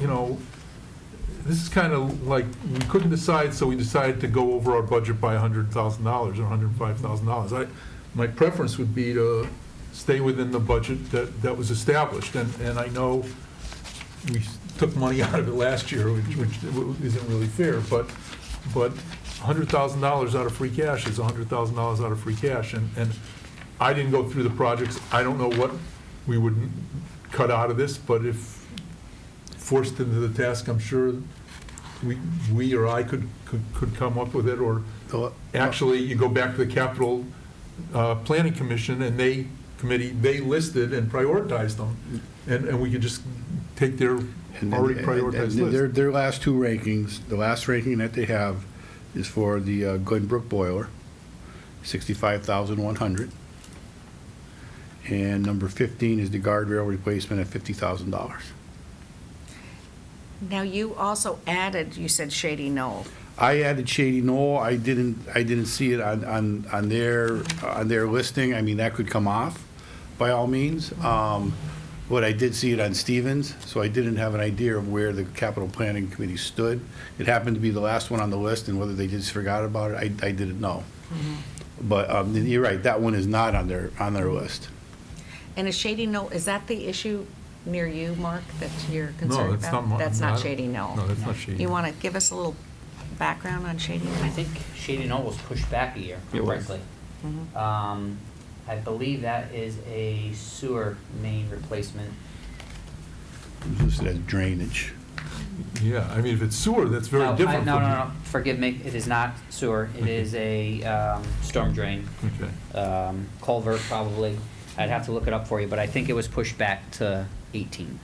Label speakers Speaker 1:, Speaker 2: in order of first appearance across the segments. Speaker 1: you know, this is kind of like, we couldn't decide, so we decided to go over our budget by $100,000 or $105,000. I, my preference would be to stay within the budget that, that was established, and, and I know we s- took money out of it last year, which, which isn't really fair, but, but $100,000 out of free cash is $100,000 out of free cash, and, and I didn't go through the projects, I don't know what we would cut out of this, but if forced into the task, I'm sure we, we or I could, could, could come up with it, or actually, you go back to the capital, uh, planning commission, and they, committee, they listed and prioritized them, and, and we could just take their
Speaker 2: And then-
Speaker 1: already
Speaker 2: and- and
Speaker 1: prioritized
Speaker 2: Their,
Speaker 1: list.
Speaker 2: their last two rankings, the last ranking that they have is for the uh, Glenbrook boiler, 65,100. And number 15 is the guardrail replacement at $50,000.
Speaker 3: Now, you also added, you said Shady Knoll.
Speaker 2: I added Shady Knoll, I didn't, I didn't see it on, on, on their, on their listing, I mean, that could come off, by all means. Um, But I did see it on Stevens, so I didn't have an idea of where the capital planning committee stood. It happened to be the last one on the list, and whether they just forgot about it, I, I didn't know. But um, you're right, that one is not on their, on their list.
Speaker 3: And is Shady Knoll, is that the issue near you, Mark, that you're concerned about?
Speaker 1: that's not my- no, I don't-
Speaker 3: Shady Knoll.
Speaker 1: no, that's not Shady
Speaker 3: You
Speaker 1: Knoll.
Speaker 3: want to give us a little background on Shady Knoll?
Speaker 4: I think Shady Knoll was pushed back a year,
Speaker 5: It was.
Speaker 4: correctly.
Speaker 5: Mm-hmm.
Speaker 4: Um, I believe that is a sewer main replacement.
Speaker 2: It's listed as drainage.
Speaker 1: Yeah, I mean, if it's sewer, that's
Speaker 4: No,
Speaker 1: very
Speaker 4: I-
Speaker 1: different.
Speaker 4: No,
Speaker 1: from-
Speaker 4: no, no, forgive me, it is not sewer, it
Speaker 1: Okay.
Speaker 4: is a, um, storm drain,
Speaker 1: Okay,
Speaker 4: um, culvert probably. I'd have to look it up for you, but I think it was pushed back to eighteen,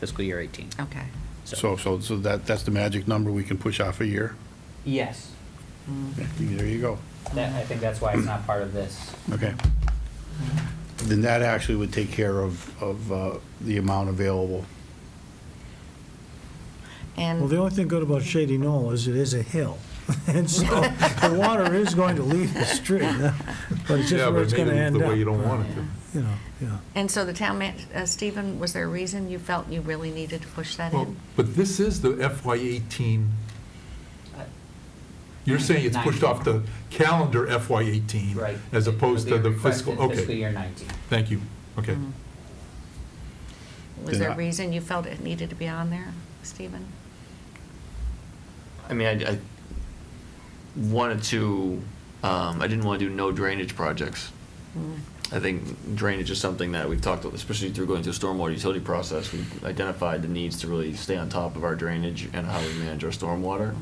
Speaker 4: fiscal year eighteen.
Speaker 3: Okay.
Speaker 2: So, so, so that, that's the magic number we can push off a year?
Speaker 4: Yes,
Speaker 2: There you go.
Speaker 4: that, I think that's why it's not part of this.
Speaker 2: Okay. Then that actually would take care of, of uh, the amount available.
Speaker 6: Well,
Speaker 3: And,
Speaker 6: the only thing good about Shady Knoll is it is a hill, and so the water is going to leave the street, but it's
Speaker 1: yeah,
Speaker 6: just
Speaker 1: but
Speaker 6: where
Speaker 1: it
Speaker 6: it's
Speaker 1: may
Speaker 6: going to
Speaker 1: leave
Speaker 6: end
Speaker 1: the
Speaker 6: up.
Speaker 1: way you don't want it to.
Speaker 6: You know, yeah.
Speaker 3: and so the town man, uh, Stephen, was there a reason you felt you really needed to push that
Speaker 1: Well,
Speaker 3: in?
Speaker 1: but this is the FY eighteen. Mm-hmm. You're saying it's pushed off the calendar FY eighteen?
Speaker 4: Right.
Speaker 1: As opposed to
Speaker 4: It'll be
Speaker 1: the fiscal,
Speaker 4: requested Fiscal
Speaker 1: okay,
Speaker 4: year nineteen.
Speaker 1: thank you, okay.
Speaker 3: Was there a
Speaker 2: Yeah.
Speaker 3: reason you felt it needed to be on there, Stephen?
Speaker 5: I mean, I, I wanted to, um, I didn't want to do no drainage projects. I think drainage is something that we've talked, about, especially through going through a stormwater utility process, we've identified the needs to really stay on top of our drainage and how we manage our stormwater.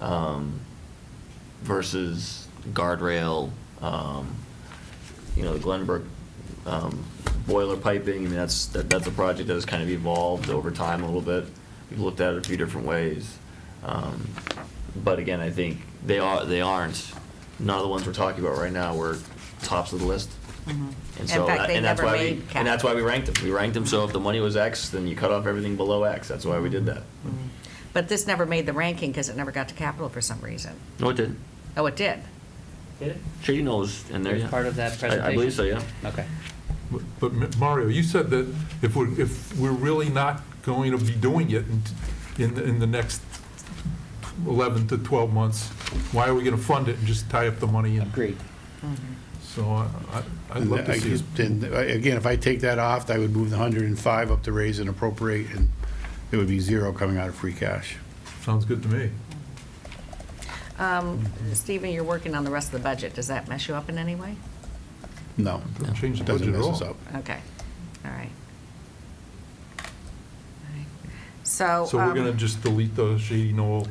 Speaker 5: Um, versus guardrail, um, you know, the Glenbrook, um, boiler piping, I mean, that's, that, that's a project that has kind of evolved over time a little bit. We've looked at it a few different ways. Um, but again, I think they are, they aren't, none of the ones we're talking about right now were tops of the list.
Speaker 3: Mm-hmm. In
Speaker 5: And so,
Speaker 3: fact,
Speaker 5: that-
Speaker 3: they
Speaker 5: and that's
Speaker 3: never
Speaker 5: why we-
Speaker 3: made cap.
Speaker 5: And that's why we ranked them. We ranked them, so if the money was X, then you cut off everything below X. That's why we did that.
Speaker 3: Mm-hmm. But this never made the ranking because it never got to capital for some reason.
Speaker 5: No, it didn't.
Speaker 3: Oh, it did?
Speaker 4: Did it?
Speaker 5: Shady knows in there,
Speaker 4: It was
Speaker 5: yeah.
Speaker 4: Part of that
Speaker 5: I-
Speaker 4: presentation?
Speaker 5: I believe so, yeah.
Speaker 4: Okay.
Speaker 1: But- But Ma- Mario, you said that if we're, if we're really not going to be doing it in, in, the- in the next 11 to 12 months, why are we going to fund it and just tie up the money? And
Speaker 4: Agreed.
Speaker 1: So I, I- I'd love to
Speaker 2: And I
Speaker 1: see us.
Speaker 2: just- and, uh, Again, if I take that off, I would move the 105 up to raise and appropriate, and it would be zero coming out of free cash.
Speaker 1: Sounds good to me.
Speaker 3: Um,
Speaker 1: Mm-hmm.
Speaker 3: Stephen, you're working on the rest of the budget. Does that mess you up in any way?
Speaker 2: No,
Speaker 1: Don't change the
Speaker 2: doesn't
Speaker 1: budget at
Speaker 2: mess us
Speaker 1: all.
Speaker 2: up.
Speaker 3: Okay, all right. All right. So.
Speaker 1: So we're
Speaker 3: um,
Speaker 1: going to just delete the Shady Knoll.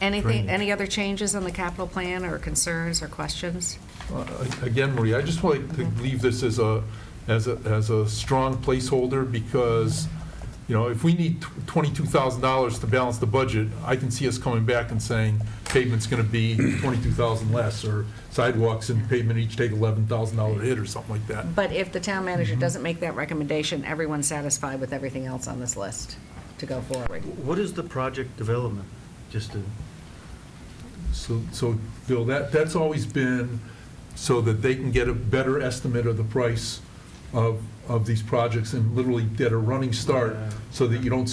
Speaker 3: Anything,
Speaker 1: drainage.
Speaker 3: any other changes on the capital plan or concerns or questions?
Speaker 1: Uh, Again, Marie, I just want to leave this as a, as a, as a strong placeholder because, you know, if we need twenty-two thousand dollars to balance the budget, I can see us coming back and saying pavement's gonna be twenty-two thousand less, or sidewalks and pavement each take eleven thousand dollar hit or something like that.
Speaker 3: But if the town manager doesn't make that recommendation, everyone's satisfied with everything else on this list to go forward.
Speaker 7: What is the project development? Just to,
Speaker 1: So, so, Bill, that, that's always been so that they can get a better estimate of the price of, of these projects and literally get a running start so that you don't